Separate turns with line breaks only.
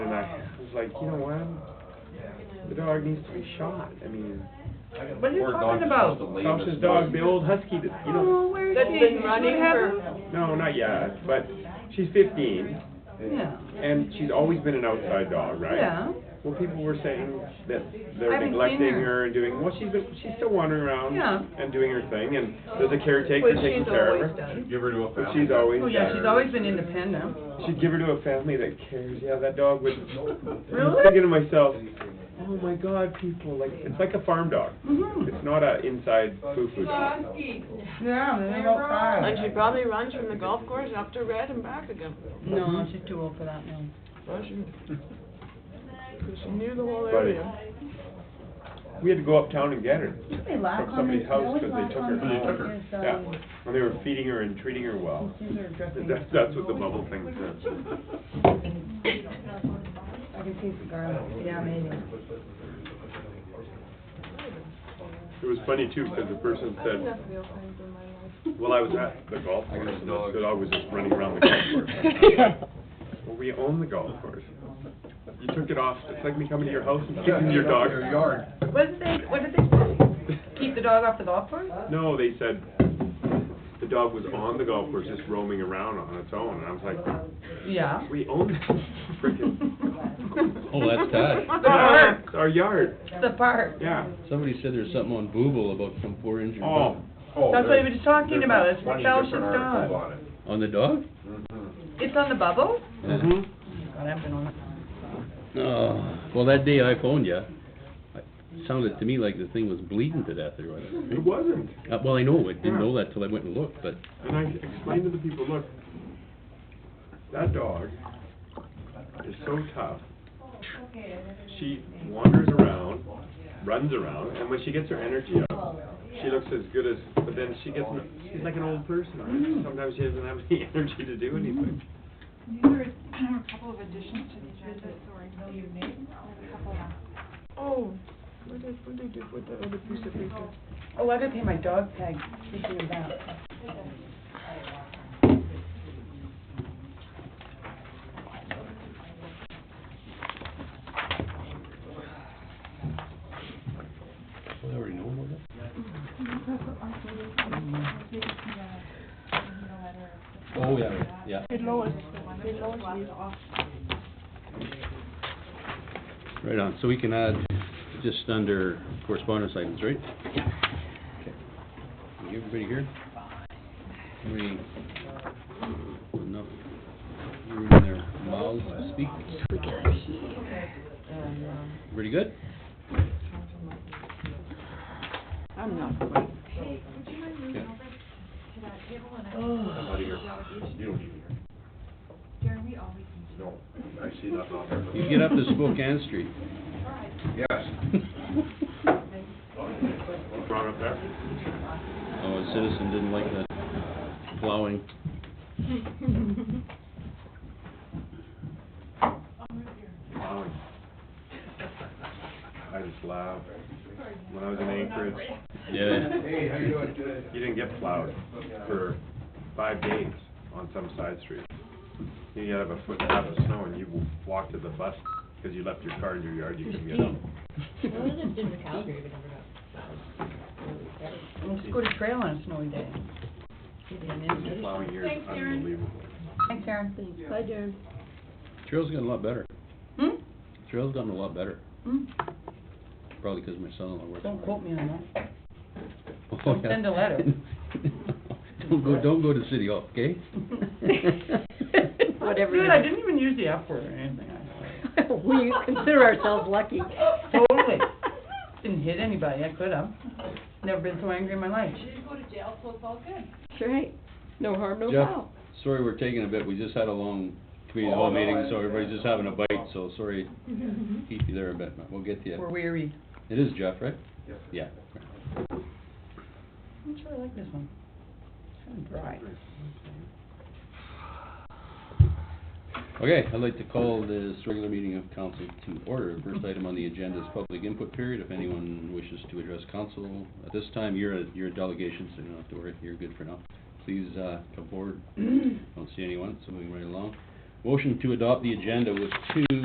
like, you know what? The dog needs to be shot. I mean,
What are you
Poor dog
talking
just
about?
wants to lay in
Sasha's
this
dog,
mud.
the old husky that, you know.
where's
That's been running for-
No, not yet, but she's fifteen.
Yeah.
And she's always been an outside dog, right?
Yeah.
Well, people were saying that
I
they're
haven't seen
neglecting
her.
her and doing, well, she's been, she's still wandering around
Yeah.
and doing her thing, and there's a caretaker
Which
taking
she's
care
always
of her.
done.
Give her to a
But
family.
she's always
Oh, yeah,
got
she's
her-
always been independent.
She'd give her to a family that cares. Yeah, that dog would.
Really?
I'm thinking to myself, oh my God, people like it's like a farm dog.
Mhm.
It's not a inside foo-foo dog.
Yeah, they're outside.
And she probably runs from the golf course up to Red and back again.
No,
Mm-hmm.
she's too old for that now.
Well, she- 'cause she knew the whole
But
area.
we had to go uptown and get her
Didn't we laugh
from
on
somebody's
this?
house
Always
because they
laugh
took
on
her.
this
home.
because,
Yeah,
um,
and they were feeding her and treating Oh, her well.
these are dressing-
That's that's what the bubble thing says.
I can taste the garlic. Yeah, amazing.
It was funny too because the person
I've
said,
enough real things in my life.
well, I was at the golf
I got
course
a
and
dog.
the dog was just running around the golf course. Well, we own the golf course. You took it off. It's like me coming to your house and kicking your dog.
Your yard.
What did they, what did they say? Keep the dog off the golf course?
No, they said the dog was on the golf course, just roaming around on its own, and I was like,
Yeah.
we own this frickin',
Oh, that's
it's
Todd.
our- it's our yard,
The park.
yeah.
Somebody said there's something on Booble about some poor injured
Oh,
dog.
Oh,
That's what
there's-
he was just talking
there's
about.
like
It's
20
Felsh's
different articles on
dog.
it.
On the dog?
It's on the bubble?
mhm.
God, I've been on it.
Oh, well, that day I phoned you, it sounded to me like the thing was bleeding to death or whatever.
Mm-hmm. It wasn't,
Uh, well, I know, I didn't know
Yeah.
that till I went and looked, but
and I explained to the people, look, that dog is so tough. She wanders around, runs around, and when she gets her energy up, she looks as good as, but then she gets, n- she's like an old person,
Mm-hmm.
right? Sometimes she doesn't have any energy to do anything.
These are a couple of additions to the agenda, so I know your name. A couple of-
Oh, what did, what did you put that other piece of paper?
Oh, I gotta pay my dog tag, speaking of that.
I already know about it. Oh, yeah, yeah,
Hey Lois, hey Lois, leave off.
right on. So we can add just under correspondence items, right? Okay. Everybody here? Everybody, enough room in their mouths to speak? Pretty good?
uh,
I'm not quite.
Yeah.
I'm out of here. You don't need me here.
Jeremy always needs
No, I see nothing out there.
You get up to Spokane Street.
Yes.
Brought up there?
Oh, a citizen didn't like the plowing.
Plowing. I just laughed. When I was in Anchorage,
Yeah.
Hey, how you doing?
you didn't get plowed for five days on some side street. You had have a foot and a half of snow and you walked to the bus because you left your car in your yard, you couldn't get up.
Let's go to trail on a snowy day.
Plowing here is unbelievable.
Thanks, Aaron.
Hi, Darren.
Trail's gotten a lot better.
Hmm?
Trail's gotten a lot better,
Hmm?
probably 'cause my son-in-law works.
Don't
there.
quote me on that.
Oh,
don't
yeah.
send a letter.
Don't go, don't go to City Hall, okay?
Whatever
Good,
you-
I didn't even use the F word or anything. I-
We consider ourselves lucky.
Totally. Didn't hit anybody, I could have. Never been so angry in my life.
to go to jail, so it's all good.
Sure, hey, no harm, no
Jeff,
foul.
sorry we're taking a bit, we just had a long community hall meeting, so everybody's just having a bite, so sorry to keep you there a bit, but we'll get to
We're
you.
weary.
It is Jeff, right? Yeah.
I'm sure I like this one. Kind of dry.
Okay, I'd like to call this regular meeting of council to order. The First item on the agenda is public input period. If anyone wishes to address council at this time, you're a, you're a delegation, so you don't have to worry, you're good for now. Please, uh, come forward. Don't see anyone, so moving right along. Motion to adopt the agenda with two